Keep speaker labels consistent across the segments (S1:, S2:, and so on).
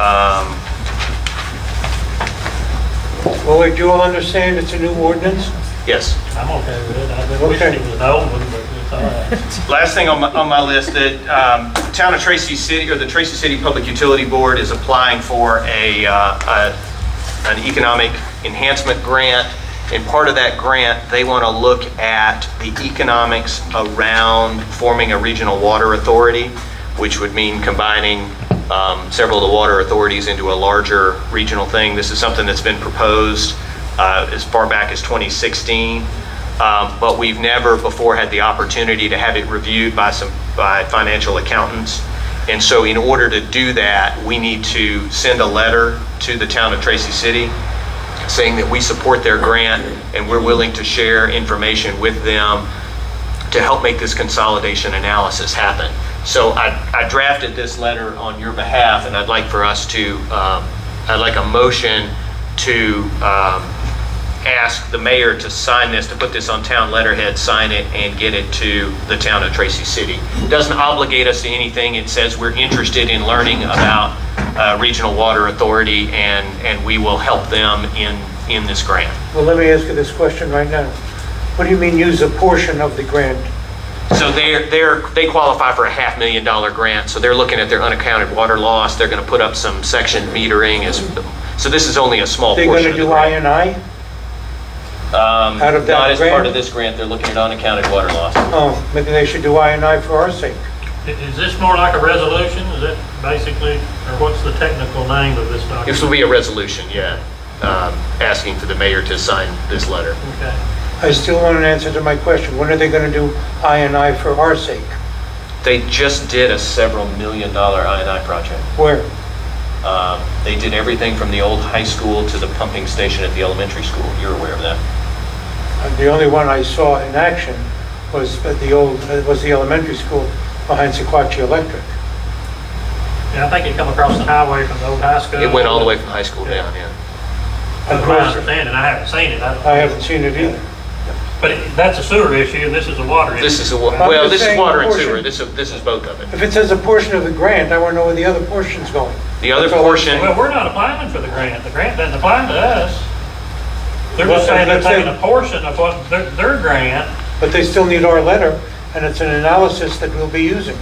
S1: Um,
S2: Well, we do understand it's a new ordinance.
S1: Yes.
S3: I'm okay with it. I've been wishing
S2: Okay.
S3: it was an old one, but it's all right.
S1: Last thing on my, on my list, that um, Town of Tracy City, or the Tracy City Public Utility Board is applying for a, uh, a- an economic enhancement grant. And part of that grant, they want to look at the economics around forming a regional water authority, which would mean combining um, several of the water authorities into a larger regional thing. This is something that's been proposed uh, as far back as 2016. Um, but we've never before had the opportunity to have it reviewed by some, by financial accountants. And so in order to do that, we need to send a letter to the town of Tracy City saying that we support their grant and we're willing to share information with them to help make this consolidation analysis happen. So I, I drafted this letter on your behalf, and I'd like for us to, um, I'd like a motion to um, ask the mayor to sign this, to put this on town letterhead, sign it, and get it to the town of Tracy City. Doesn't obligate us to anything. It says we're interested in learning about uh, Regional Water Authority, and, and we will help them in, in this grant.
S2: Well, let me ask you this question right now. What do you mean use a portion of the grant?
S1: So they're, they're, they qualify for a half million dollar grant, so they're looking at their unaccounted water loss, they're gonna put up some section metering as, so this is only a small
S2: They're
S1: portion of
S2: going to
S1: the
S2: do I
S1: grant.
S2: and I?
S1: Um,
S2: out of that
S1: Not as part
S2: grant?
S1: of this grant, they're looking at unaccounted water loss.
S2: Oh, maybe they should do I and I for our sake.
S3: I- Is this more like a resolution? Is that basically, or what's the technical name of this
S1: This
S3: document?
S1: will be a resolution, yeah, um, asking for the mayor to sign this letter.
S3: Okay.
S2: I still want an answer to my question. When are they going to do I and I for our sake?
S1: They just did a several million dollar INI project.
S2: Where?
S1: Um, They did everything from the old high school to the pumping station at the elementary school, you're aware of that?
S2: And The only one I saw in action was at the old, uh, was the elementary school behind Sequatchie Electric.
S3: Yeah, I think it come across the highway from the old high school.
S1: It went all the way from high school down, yeah.
S3: That's my understanding. I haven't seen it. I don't-
S2: I haven't seen it either.
S3: But it- that's a sewer issue and this is a water issue.
S1: This is, a wa-
S2: I'm
S1: well,
S2: just
S1: this is
S2: saying
S1: water and
S2: portion.
S1: sewer, this is, this is both of it.
S2: If it says a portion of the grant, I want to know where the other portion's going.
S1: The other
S2: That's all I'm
S1: portion,
S3: Well, we're not applying for the grant. The grant doesn't apply to us. They're just saying they're
S2: Well, that's it.
S3: taking a portion of what, their, their grant.
S2: But they still need our letter, and it's an analysis that we'll be using.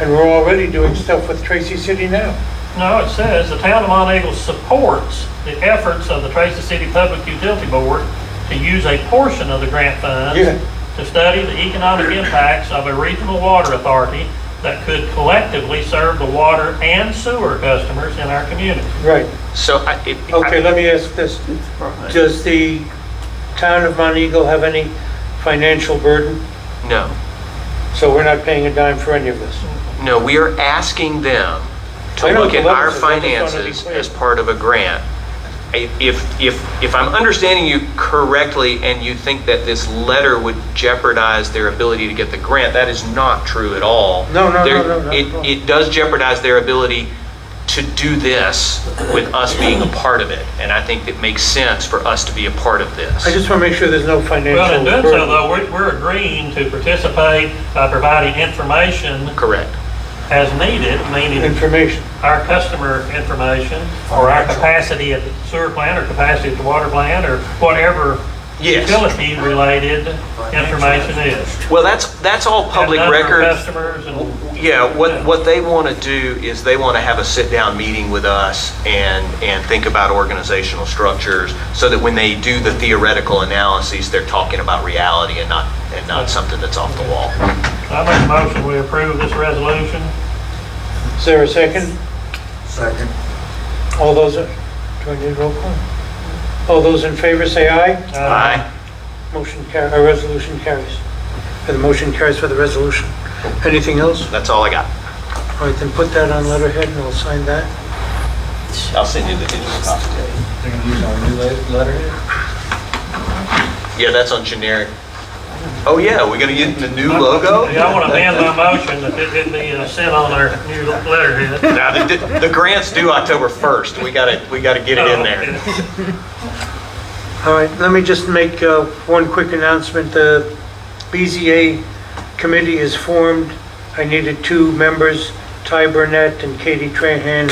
S2: And we're already doing stuff with Tracy City now.
S3: No, it says the town of Mount Eagle supports the efforts of the Tracy City Public Utility Board to use a portion of the grant
S2: Yeah.
S3: funds to study the economic impacts of a regional water authority that could collectively serve the water and sewer customers in our community.
S2: Right.
S1: so I, it-
S2: Okay,
S1: I-
S2: let me ask this. Does the town of Mount Eagle have any financial burden?
S1: no,
S2: So we're not paying a dime for any of this?
S1: no, we are asking them to
S2: I know
S1: look
S2: the
S1: at our
S2: levels of- I just wanted to be
S1: finances
S2: clear.
S1: as part of a grant. I- If, if, if I'm understanding you correctly and you think that this letter would jeopardize their ability to get the grant, that is not true at all.
S2: No, no, no,
S1: There-
S2: no, not at
S1: it-
S2: all.
S1: It does jeopardize their ability to do this with us being a part of it. And I think it makes sense for us to be a part of this.
S2: I just want to make sure there's no
S3: Well, in
S2: financial
S3: doing so
S2: burden.
S3: though, we're, we're agreeing to participate by providing information
S1: Correct.
S3: as needed, meaning
S2: Information.
S3: our customer information or our capacity at the sewer plant or capacity at the water plant or whatever
S1: Yes.
S3: utility-related information is.
S1: Well, that's, that's all public
S3: And number of
S1: record.
S3: Customers and.
S1: Yeah, what, what they want to do is they want to have a sit-down meeting with us and, and think about organizational structures so that when they do the theoretical analyses, they're talking about reality and not, and not something that's off the wall.
S3: I make a motion, we approve this resolution.
S2: Is there a second?
S4: Second.
S2: All those, do I need roll call? All those in favor say aye.
S3: Uh,
S2: Motion car, our resolution carries. And the motion carries for the resolution. Anything else?
S1: That's all I got.
S2: All right, then put that on letterhead and I'll sign that.
S1: I'll send you the digital copy.
S4: They're gonna use our new le- letterhead?
S1: Yeah, that's on generic. Oh, yeah, we're going to get the new logo?
S3: Yeah, I want to amend my motion that it it be uh, sent on our new letterhead.
S1: Now, the, the grant's due October 1st. We got to, we got to get it
S3: Oh,
S1: in there.
S2: All right, let me just make uh, one quick announcement. The BZA committee is formed. I needed two members, Ty Burnett and Katie Trahan